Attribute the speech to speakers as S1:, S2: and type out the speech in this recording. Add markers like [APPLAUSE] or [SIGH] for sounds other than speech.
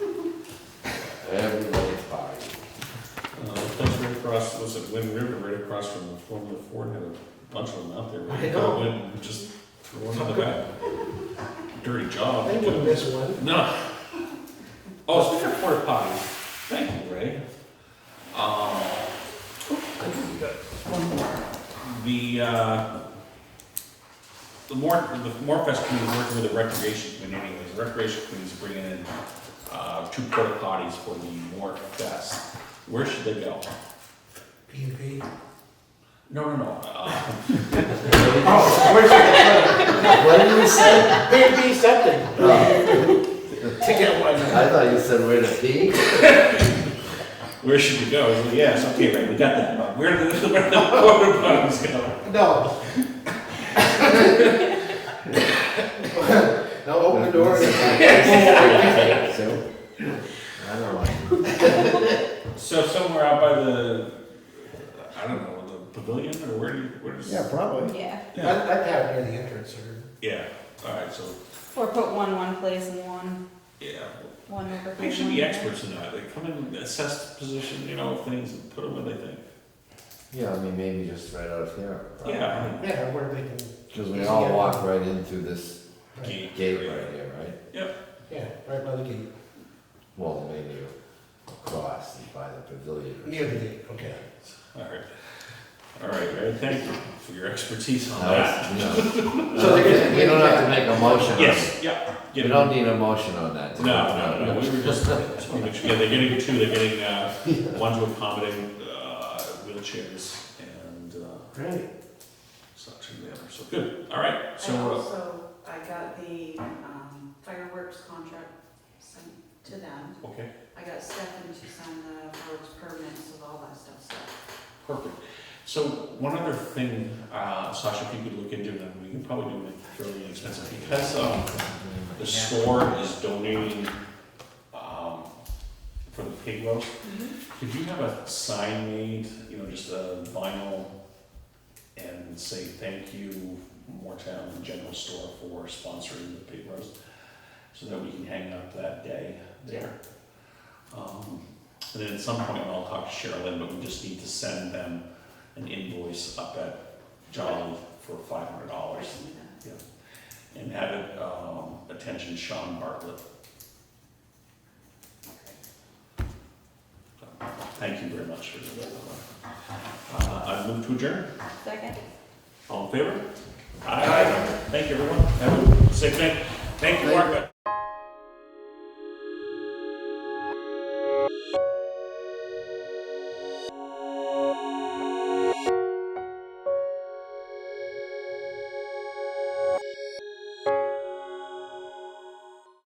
S1: Uh, across, was it Wind River, right across from the former Ford, had a bunch of them out there.
S2: I know.
S1: And Just threw one in the back. Dirty job.
S2: They wouldn't miss one.
S1: No. Oh, speaking of porta potties, thank you, Ray. Um, the, uh, the more, the Morfest committee is working with the recreation committee anyways, the recreation committee is bringing in, uh, two porta potties for the Morfest. Where should they go?
S2: P and P.
S1: No, no, no, uh,
S2: Oh, where's it?
S3: What did you say?
S2: P and P septic.
S3: Oh,
S2: Ticket one.
S3: I thought you said where to pee.
S1: where should we go? Well, Yes, okay, Ray, we got that, where do the, [LAUGHS] where do the porta potties [LAUGHS] go?
S2: No. No, open the door.
S3: So, I don't know.
S1: So somewhere out by the, I don't know, the pavilion or where do you, where's?
S3: probably.
S4: Yeah,
S2: I'd, I'd have it near the entrance or.
S1: Yeah, alright, so,
S4: or put one one place and one,
S1: yeah,
S4: one over.
S1: they should be
S4: here.
S1: experts in that, they come in and assess position, you know, things and put them where they think.
S3: Yeah, I mean, maybe just right out of here.
S1: Yeah.
S2: Yeah, where they can,
S3: Because we all walk right in through this
S2: right,
S3: gate right here, right?
S2: yeah, right by the gate,
S3: Well, maybe across and by the pavilion. or
S2: near the gate, okay.
S1: Alright, alright, Ray, thank you for your expertise on
S3: something.
S1: that.
S3: No,
S2: So they're gonna-
S3: we don't have to make a motion on it.
S1: Yes, yeah.
S3: We
S1: get it.
S3: don't need a motion on that.
S1: No, no, no, we were just, uh, just wanna make sure- yeah, they're getting two, they're getting, [LAUGHS] uh, one to accommodate, uh, wheelchairs and, uh,
S2: Right.
S1: such and the other, so good, alright, so.
S5: And
S1: uh,
S5: also, I got the um, fireworks contract sent to them.
S1: Okay,
S5: I got Stefan to sign the fireworks permits and all that stuff, so.
S1: perfect. So one other thing, uh, Sasha, if you could look into, and we can probably do it fairly inexpensive, because, um, the store is donating, um, for the pig roast,
S4: Mm-hmm.
S1: could you have a sign made, you know, just a vinyl, and say, thank you, Moretown General Store for sponsoring the pig roast, so that we can hang up that day there. Um, And then at some point, I'll talk to Sherilyn, but we just need to send them an invoice up at Jolly for five hundred dollars and have it, um, attention Sean Bartlett. Thank you very much for that. Uh, I move to adjourn.
S4: Second?
S1: All in favor? Aye. Thank you, everyone. Have a safe night. Thank you, Mark.